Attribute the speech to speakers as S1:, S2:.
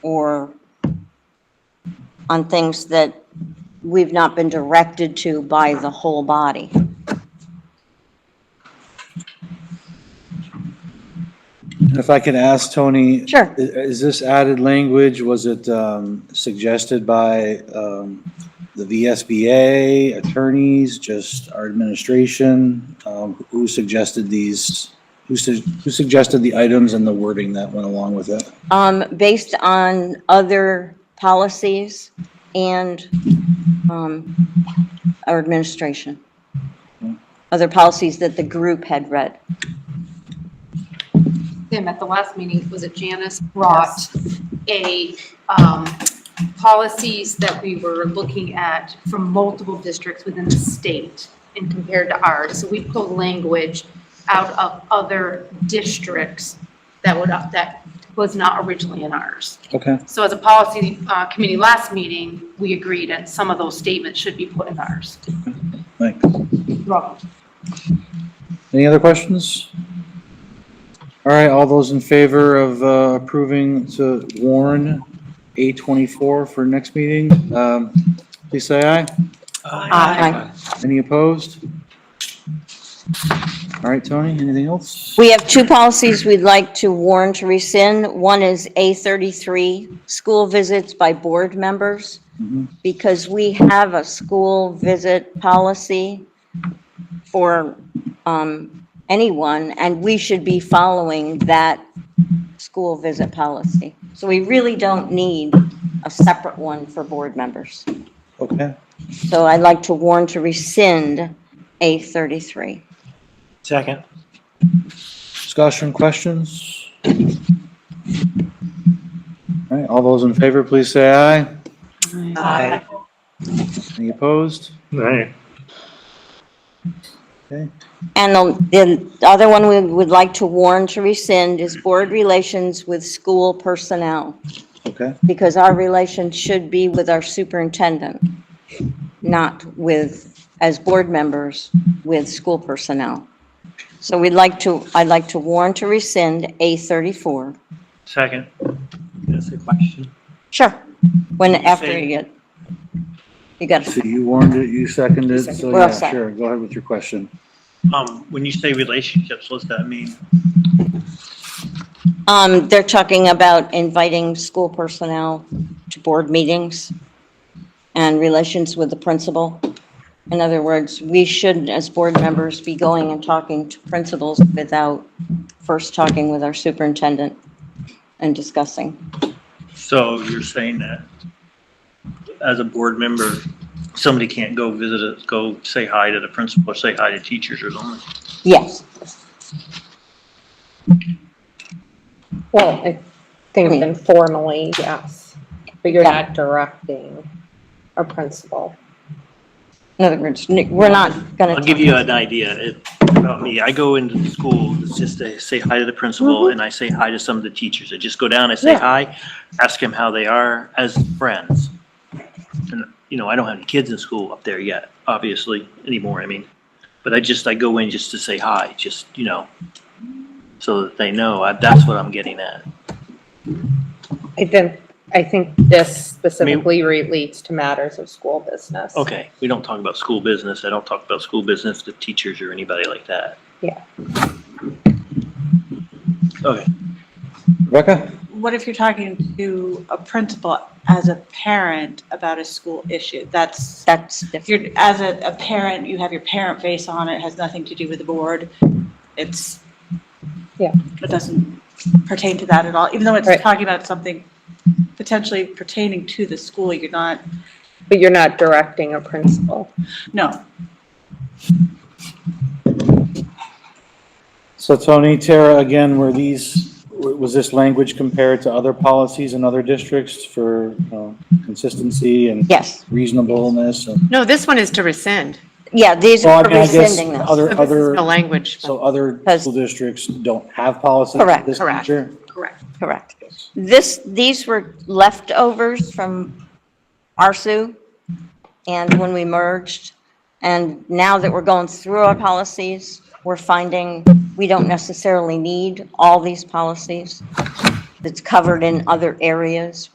S1: or on things that we've not been directed to by the whole body.
S2: If I could ask Tony.
S1: Sure.
S2: i- Is this added language, was it um, suggested by um, the VSBA, attorneys, just our administration? Um, Who suggested these, who su- who suggested the items and the wording that went along with it?
S1: Um, based on other policies and, um, our administration. Other policies that the group had read.
S3: Tim, at the last meeting, was it Janice brought a, um, policies that we were looking at from multiple districts within the state and compared to ours. So we pulled language out of other districts that would, that was not originally in ours.
S2: Okay,
S3: So as a policy, uh, committee last meeting, we agreed that some of those statements should be put in ours.
S2: thanks.
S3: Wrong.
S2: Any other questions? All right, all those in favor of uh, approving to warn A24 for next meeting, um, please say aye.
S1: Aye.
S2: Any opposed? All right, Tony, anything else?
S1: We have two policies we'd like to warn to rescind. One is A33, school visits by board members,
S2: Mhm.
S1: because we have a school visit policy for um, anyone, and we should be following that school visit policy. So we really don't need a separate one for board members.
S2: Okay.
S1: So I'd like to warn to rescind A33.
S4: Second.
S2: Discussion, questions? All right, all those in favor, please say aye.
S4: Aye.
S2: Any opposed?
S4: Aye.
S2: Okay,
S1: And the the other one we would like to warn to rescind is board relations with school personnel,
S2: okay,
S1: because our relations should be with our superintendent, not with, as board members, with school personnel. So we'd like to, I'd like to warn to rescind A34.
S4: Second. That's a question.
S1: Sure. When, after
S4: Say-
S1: you get, you got,
S2: so you warned it, you seconded, it, so
S1: We're all
S2: yeah,
S1: set.
S2: sure, go ahead with your question.
S4: Um, when you say relationships, what's that mean?
S1: um, they're talking about inviting school personnel to board meetings and relations with the principal. In other words, we should, as board members, be going and talking to principals without first talking with our superintendent and discussing.
S4: So you're saying that as a board member, somebody can't go visit, a- go say hi to the principal, or say hi to teachers or something?
S1: Yes,
S5: Well, I think
S1: Hmm.
S5: informally, yes, but you're
S1: Yeah.
S5: not directing a principal.
S1: in other words, we're not gonna.
S4: I'll give you an idea It- about me. I go into the school, it's just to say hi to the principal, and I say hi to some of the teachers. I just go down, I say
S5: Mm-hmm. Yeah.
S4: hi, ask them how they are as friends. And, you know, I don't have any kids in school up there yet, obviously, anymore, I mean. But I just, I go in just to say hi, just, you know, so that they know. I- That's what I'm getting at.
S5: I think, I think this specifically relates to matters of school business.
S4: Okay, we don't talk about school business. I don't talk about school business to teachers or anybody like that.
S5: Yeah.
S4: Okay.
S2: Rebecca?
S6: What if you're talking to a principal as a parent about a school issue? That's,
S1: That's
S6: if
S1: different.
S6: you're, as a, a parent, you have your parent face on, it has nothing to do with the board. It's.
S5: Yeah.
S6: It doesn't pertain to that at all, even though it's
S5: Right.
S6: talking about something potentially pertaining to the school, you're not,
S5: But you're not directing a principal.
S6: no.
S2: So Tony, Tara, again, were these, was this language compared to other policies in other districts for uh, consistency and
S1: Yes,
S2: reasonableness? and-
S7: No, this one is to rescind.
S1: yeah, these
S2: Well, I
S1: are
S2: mean, I guess
S1: rescinding this.
S7: So
S2: other,
S7: this is
S2: other,
S7: the language.
S2: so other
S1: Because-
S2: school districts don't have policies of
S1: Correct.
S2: this
S7: Correct.
S2: nature?
S3: Correct.
S1: Correct. This, these were leftovers from ARSU and when we merged. And now that we're going through our policies, we're finding we don't necessarily need all these policies. It's covered in other areas